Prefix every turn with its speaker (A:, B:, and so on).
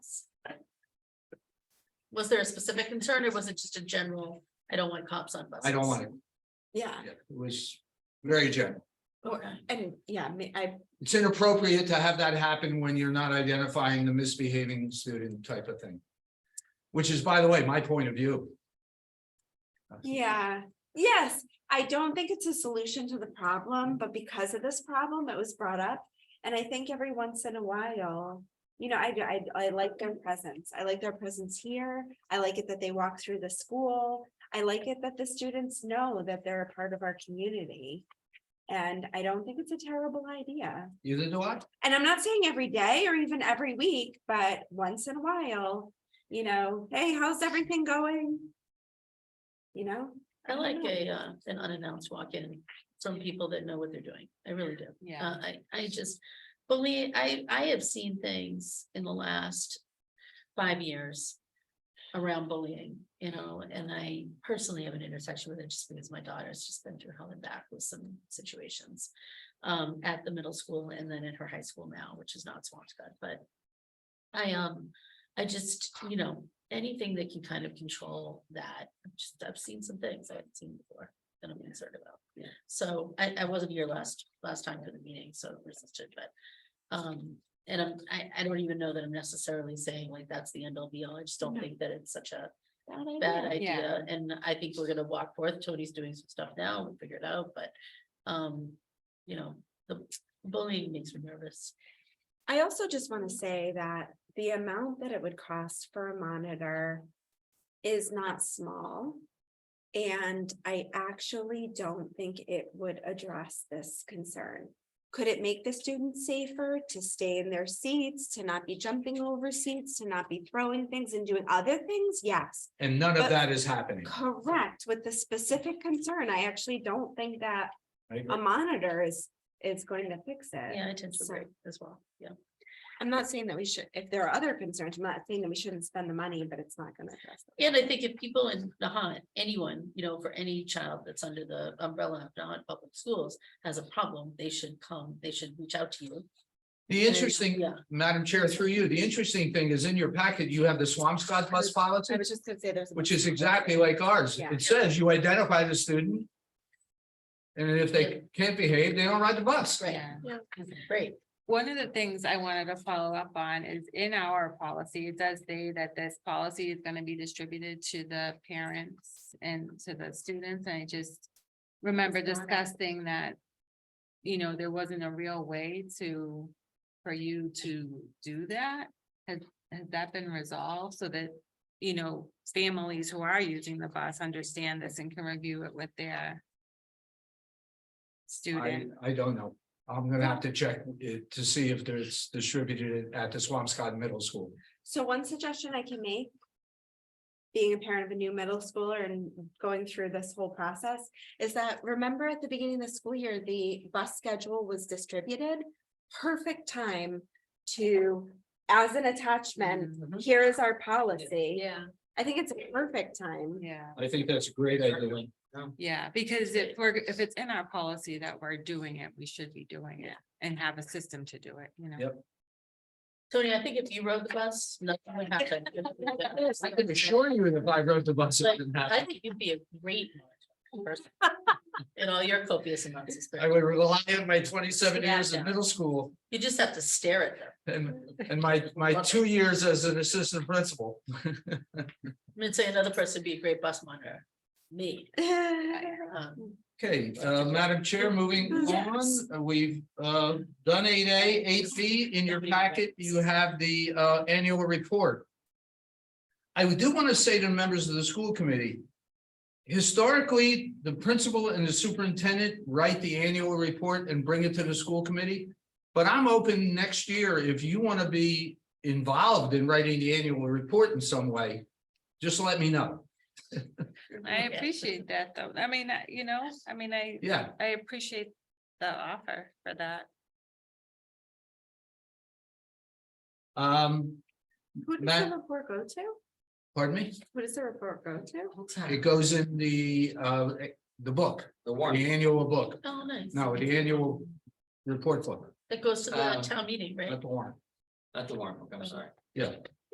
A: was there a specific concern or was it just a general, I don't want cops on buses?
B: I don't want it.
C: Yeah,
B: It was very general.
A: Okay,
C: and yeah, I mean, I,
B: It's inappropriate to have that happen when you're not identifying the misbehaving student type of thing. Which is, by the way, my point of view.
C: yeah, yes, I don't think it's a solution to the problem, but because of this problem, it was brought up. And I think every once in a while, you know, I, I, I like their presence. I like their presence here. I like it that they walk through the school. I like it that the students know that they're a part of our community. And I don't think it's a terrible idea.
B: Either do I.
C: and I'm not saying every day or even every week, but once in a while, you know, hey, how's everything going? You know,
A: I like a, uh, an unannounced walk-in from people that know what they're doing. I really do.
D: Yeah.
A: Uh, I, I just believe, I, I have seen things in the last five years around bullying, you know, and I personally have an intersection with it just because my daughter's just been through hell and back with some situations um, at the middle school and then at her high school now, which is not Swampscott, but I, um, I just, you know, anything that can kind of control that, I've just, I've seen some things I haven't seen before that I'm concerned about. So I, I wasn't here last, last time for the meeting, so resisted, but, um, and I'm, I, I don't even know that I'm necessarily saying like that's the end all be all. I just don't
C: No.
A: think that it's such a
C: bad
A: bad
C: idea.
A: idea, and I think we're gonna walk forth, Tony's doing some stuff now, we'll figure it out, but, um, you know, the bullying makes me nervous.
C: I also just want to say that the amount that it would cost for a monitor is not small. And I actually don't think it would address this concern. Could it make the students safer to stay in their seats, to not be jumping over seats, to not be throwing things and doing other things? Yes.
B: And none of
C: But-
B: that is happening.
C: Correct, with the specific concern, I actually don't think that
B: I agree.
C: a monitor is, is going to fix it.
A: Yeah, I tend to
C: So-
A: agree as well, yeah.
C: I'm not saying that we should, if there are other concerns, I'm not saying that we shouldn't spend the money, but it's not gonna address. it.
A: And I think if people in Nahant, anyone, you know, for any child that's under the umbrella of Nahant Public Schools has a problem, they should come, they should reach out to you.
B: The interesting,
A: Yeah.
B: Madam Chair, through you, the interesting thing is in your packet, you have the Swampscott bus policy,
C: I was just gonna say there's. a
B: which
C: bunch
B: is
C: of-
B: exactly like ours.
C: Yeah.
B: It says you identify the student. And if they can't behave, they don't ride the bus.
A: Right,
D: Yeah.
C: Yeah.
A: great,
D: One of the things I wanted to follow up on is in our policy, it does say that this policy is gonna be distributed to the parents and to the students, and I just remember
C: It's not a-
D: discussing that, you know, there wasn't a real way to, for you to do that. Has, has that been resolved so that, you know, families who are using the bus understand this and can review it with their
B: I,
D: student?
B: I don't know. I'm gonna have to check it to see if there's distributed at the Swampscott Middle School.
C: So one suggestion I can make. Being a parent of a new middle schooler and going through this whole process is that, remember at the beginning of the school year, the bus schedule was distributed? Perfect time to, as an
B: Mm-hmm.
C: attachment, here is our policy.
A: yeah.
C: I think it's a perfect time.
D: Yeah.
B: I think that's a great idea.
D: Yeah, because if we're, if it's in our policy that we're doing it, we should be doing it and have a system to do it, you know?
B: Yep.
A: Tony, I think if you rode the bus, nothing would happen.
B: I can assure you that if I rode the bus, it didn't
A: I
B: happen.
A: think you'd be a great person. In all your copious amounts of
B: I
A: spirit,
B: would rely on my twenty-seven years
A: Yeah.
B: in middle school
A: you just have to stare at them.
B: and, and my, my two years as an assistant principal.
A: I'm gonna say another person would be a great bus monitor, me. Um,
B: Okay, uh, Madam Chair, moving
C: Yes.
B: on, we've, uh, done eight A, eight B. In your packet, you have the, uh, annual report. I do want to say to members of the school committee, historically, the principal and the superintendent write the annual report and bring it to the school committee. But I'm open next year if you want to be involved in writing the annual report in some way, just let me know.
D: I
A: Yeah.
D: appreciate that though. I mean, I- you know, I mean, I,
B: Yeah,
D: I appreciate the offer for that.
B: um,
C: Who does
B: Matt?
C: the report go to?
B: pardon me?
C: Who does the report go to?
B: It goes in the, uh, the book,
E: The
B: the
E: one,
B: annual book,
A: Oh, nice.
B: no, the annual report book,
A: That goes to the
E: Uh,
A: town meeting, right?
B: not the warrant.
E: not the warrant book, I'm sorry.
B: Yeah,